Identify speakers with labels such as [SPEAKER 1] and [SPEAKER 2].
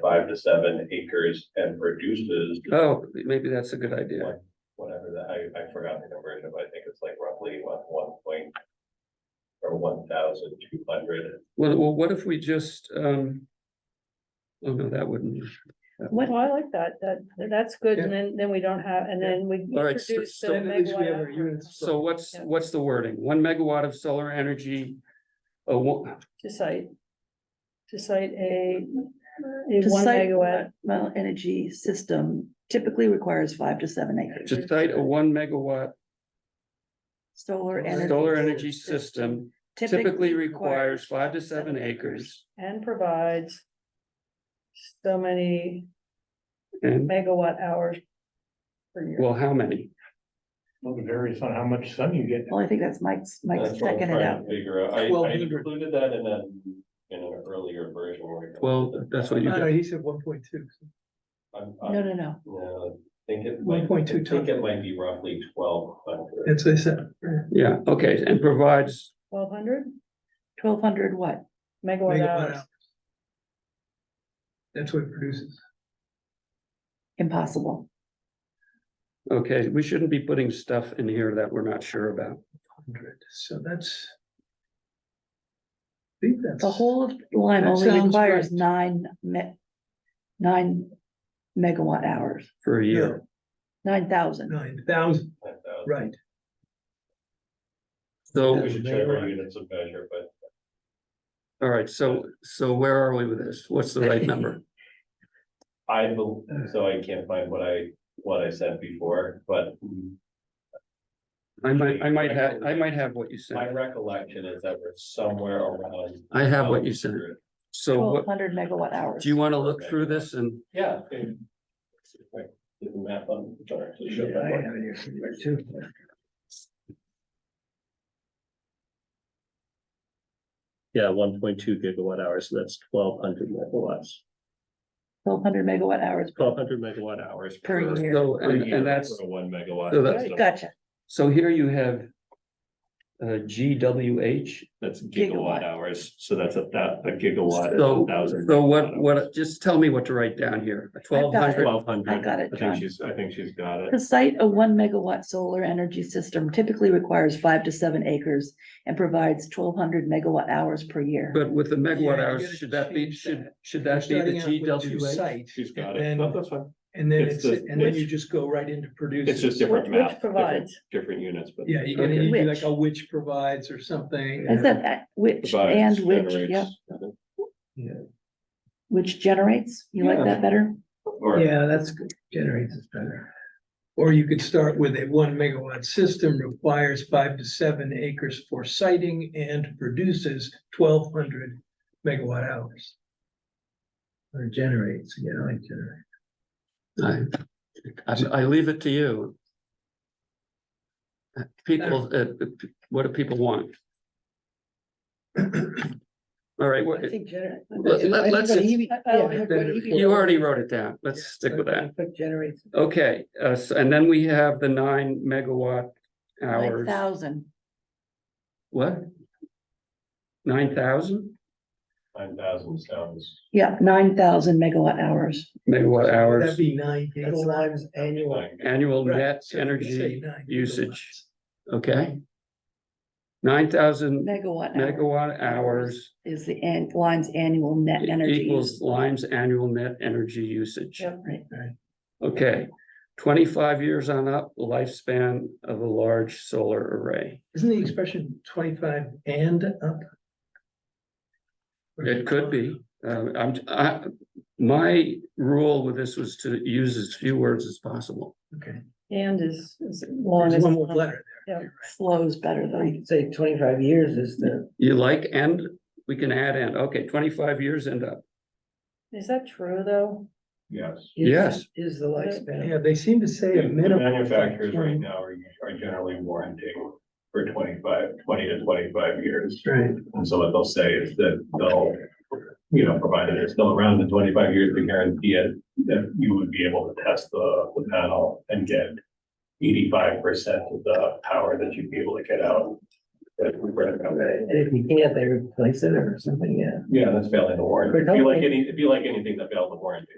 [SPEAKER 1] five to seven acres and produces
[SPEAKER 2] Oh, maybe that's a good idea.
[SPEAKER 1] Like, whatever that, I, I forgot the conversion, but I think it's like roughly one, one point or one thousand two hundred.
[SPEAKER 2] Well, well, what if we just, um. Oh, no, that wouldn't. that wouldn't-
[SPEAKER 3] Well, I like that, that, that's good, and then, then we don't have, and then we.
[SPEAKER 2] All right, so-
[SPEAKER 3] introduce the
[SPEAKER 2] so
[SPEAKER 4] Then at least we have
[SPEAKER 3] megawatt
[SPEAKER 4] our
[SPEAKER 3] hour.
[SPEAKER 4] units.
[SPEAKER 2] So what's,
[SPEAKER 3] Yeah.
[SPEAKER 2] what's the wording? One megawatt of solar energy. A one,
[SPEAKER 3] To cite. To cite a, a
[SPEAKER 5] To
[SPEAKER 3] one
[SPEAKER 5] site
[SPEAKER 3] megawatt,
[SPEAKER 5] Well, energy system typically requires five to seven acres.
[SPEAKER 2] to cite a one megawatt
[SPEAKER 5] Solar energy.
[SPEAKER 2] solar energy system typically requires five to seven acres.
[SPEAKER 3] and provides. So many
[SPEAKER 2] And,
[SPEAKER 3] megawatt hours. Per year,
[SPEAKER 2] well, how many?
[SPEAKER 4] Well, it varies on how much sun you get.
[SPEAKER 5] Well, I think that's Mike's, Mike's
[SPEAKER 1] That's what I'm
[SPEAKER 5] checking it
[SPEAKER 1] trying
[SPEAKER 5] out.
[SPEAKER 1] to Figure out, I, I
[SPEAKER 4] 1,200.
[SPEAKER 1] included that in a, in an earlier version where. we-
[SPEAKER 2] Well, that's what you
[SPEAKER 4] No,
[SPEAKER 2] got.
[SPEAKER 4] he said one point two.
[SPEAKER 1] I'm,
[SPEAKER 5] No,
[SPEAKER 1] I'm,
[SPEAKER 5] no, no.
[SPEAKER 1] yeah, I think it might, I
[SPEAKER 4] 1.2
[SPEAKER 1] think it might be roughly twelve hundred.
[SPEAKER 4] That's what I said.
[SPEAKER 2] Yeah, okay, and provides,
[SPEAKER 3] twelve hundred
[SPEAKER 5] Twelve hundred what?
[SPEAKER 3] megawatt hours,
[SPEAKER 4] That's what it produces.
[SPEAKER 5] Impossible.
[SPEAKER 2] okay, we shouldn't be putting stuff in here that we're not sure about.
[SPEAKER 4] Hundred, so that's. I think that's.
[SPEAKER 5] The whole line
[SPEAKER 4] That
[SPEAKER 5] only
[SPEAKER 4] sounds
[SPEAKER 5] requires
[SPEAKER 4] right.
[SPEAKER 5] nine me- nine megawatt hours,
[SPEAKER 2] For a year,
[SPEAKER 5] nine thousand.
[SPEAKER 4] Nine thousand, right.
[SPEAKER 2] so,
[SPEAKER 1] We should check our units of measure, but
[SPEAKER 2] all right, so, so where are we with this? What's the right number?
[SPEAKER 1] I, bel- so I can't find what I, what I said before, but
[SPEAKER 2] I might, I might have, I might have what you
[SPEAKER 1] my
[SPEAKER 2] said,
[SPEAKER 1] recollection is that we're somewhere around.
[SPEAKER 2] I have what you said, so what,
[SPEAKER 5] Twelve hundred megawatt hours.
[SPEAKER 2] do you wanna look through this and?
[SPEAKER 1] Yeah. okay. Right, Do the math on, sorry, I should
[SPEAKER 4] Yeah, I
[SPEAKER 1] have.
[SPEAKER 4] have it here somewhere too.
[SPEAKER 6] Yeah, one point two gigawatt hours, so that's twelve hundred megawatts,
[SPEAKER 5] Twelve hundred megawatt hours.
[SPEAKER 6] twelve hundred megawatt hours.
[SPEAKER 5] Per year.
[SPEAKER 2] So,
[SPEAKER 6] per
[SPEAKER 2] and,
[SPEAKER 6] year
[SPEAKER 2] and that's,
[SPEAKER 6] for a One megawatt.
[SPEAKER 2] so that's-
[SPEAKER 6] system.
[SPEAKER 5] Gotcha.
[SPEAKER 2] so here you have. Uh, GWH,
[SPEAKER 6] That's
[SPEAKER 5] Gigawatt.
[SPEAKER 6] gigawatt hours, so that's a that a gigawatt. is
[SPEAKER 2] so,
[SPEAKER 6] 1,000
[SPEAKER 2] so what, what, just tell me what to write down here, twelve hundred,
[SPEAKER 6] Twelve hundred.
[SPEAKER 5] I got it,
[SPEAKER 6] I
[SPEAKER 5] John.
[SPEAKER 6] think she's, I think she's got
[SPEAKER 5] To
[SPEAKER 6] it.
[SPEAKER 5] site a one megawatt solar energy system typically requires five to seven acres and provides twelve hundred megawatt hours per year.
[SPEAKER 2] but with the megawatt
[SPEAKER 4] you
[SPEAKER 2] hours,
[SPEAKER 4] gotta
[SPEAKER 2] should that be,
[SPEAKER 4] change
[SPEAKER 2] should,
[SPEAKER 4] that.
[SPEAKER 2] should that be the
[SPEAKER 4] Starting out with two
[SPEAKER 2] GWH?
[SPEAKER 4] site,
[SPEAKER 6] She's got it.
[SPEAKER 4] and
[SPEAKER 6] No,
[SPEAKER 4] then-
[SPEAKER 6] that's fine.
[SPEAKER 4] And then
[SPEAKER 6] It's
[SPEAKER 4] it's,
[SPEAKER 6] the-
[SPEAKER 4] and then you
[SPEAKER 6] which-
[SPEAKER 4] just go right into produce.
[SPEAKER 6] It's just different
[SPEAKER 3] Which-
[SPEAKER 6] math.
[SPEAKER 3] which
[SPEAKER 6] different-
[SPEAKER 3] provides.
[SPEAKER 6] Different units, but.
[SPEAKER 4] Yeah, you're gonna
[SPEAKER 5] Okay.
[SPEAKER 4] need like
[SPEAKER 5] Which.
[SPEAKER 4] a which provides or something.
[SPEAKER 5] Is that uh, which
[SPEAKER 6] provides,
[SPEAKER 5] and which,
[SPEAKER 6] generates.
[SPEAKER 5] yeah, which generates? You like
[SPEAKER 6] Yeah.
[SPEAKER 5] that better?
[SPEAKER 1] Or,
[SPEAKER 4] Yeah, that's good. Generates is better. Or you could start with a one megawatt system requires five to seven acres for siting and produces twelve hundred megawatt hours. Or generates, yeah, like generate.
[SPEAKER 2] I, I- I leave it to you. People, uh, what do people want? All right, what,
[SPEAKER 5] I think gener-
[SPEAKER 2] Let- let- let's-
[SPEAKER 3] I- I don't think
[SPEAKER 4] better.
[SPEAKER 2] you already wrote it down, let's stick with that.
[SPEAKER 4] Generates.
[SPEAKER 2] Okay, uh, s- and then we have the nine megawatt
[SPEAKER 5] Nine
[SPEAKER 2] hours.
[SPEAKER 5] thousand.
[SPEAKER 2] What? Nine thousand
[SPEAKER 1] nine thousand sounds.
[SPEAKER 5] Yeah, nine thousand megawatt hours.
[SPEAKER 2] megawatt
[SPEAKER 4] That'd
[SPEAKER 2] hours,
[SPEAKER 4] be nine.
[SPEAKER 7] times annual.
[SPEAKER 1] like,
[SPEAKER 2] annual net energy, usage. okay? Nine thousand
[SPEAKER 5] Megawatt. hour
[SPEAKER 2] megawatt hours
[SPEAKER 5] Is the an- line's annual net
[SPEAKER 2] e-
[SPEAKER 5] energy.
[SPEAKER 2] equals
[SPEAKER 5] use.
[SPEAKER 2] Lime's annual net energy usage.
[SPEAKER 3] Yep.
[SPEAKER 5] Right.
[SPEAKER 2] Okay, twenty-five years on up, lifespan of a large solar array.
[SPEAKER 4] Isn't the expression twenty-five and up?
[SPEAKER 2] It could be, uh, I'm, I, my rule with this was to use as few words as possible.
[SPEAKER 4] Okay,
[SPEAKER 3] and is, is long
[SPEAKER 4] there's
[SPEAKER 3] as.
[SPEAKER 4] one more letter.
[SPEAKER 5] Slows better
[SPEAKER 7] So you
[SPEAKER 5] though.
[SPEAKER 7] could say twenty-five years is the,
[SPEAKER 2] You like and, we can add and, okay, twenty-five years and up,
[SPEAKER 3] Is that true, though?
[SPEAKER 1] Yes.
[SPEAKER 7] is-
[SPEAKER 2] Yes.
[SPEAKER 7] Is the lifespan.
[SPEAKER 4] Yeah, they seem to say a
[SPEAKER 1] The
[SPEAKER 4] minimum. of
[SPEAKER 1] Manufacturers right
[SPEAKER 4] 20.
[SPEAKER 1] now are, are generally warranting for 25, 20 to twenty-five years.
[SPEAKER 4] Right.
[SPEAKER 1] And so what they'll say is that they'll, you know, provided it's still around in twenty-five years, they guarantee it, that you would be able to test the, the panel and get eighty-five percent of the power that you'd be able to get out that we read about.
[SPEAKER 7] And if you can't, they replace it or something, yeah.
[SPEAKER 1] Yeah, that's failing the warrant. It'd be like any, it'd be like anything that failed the warrant.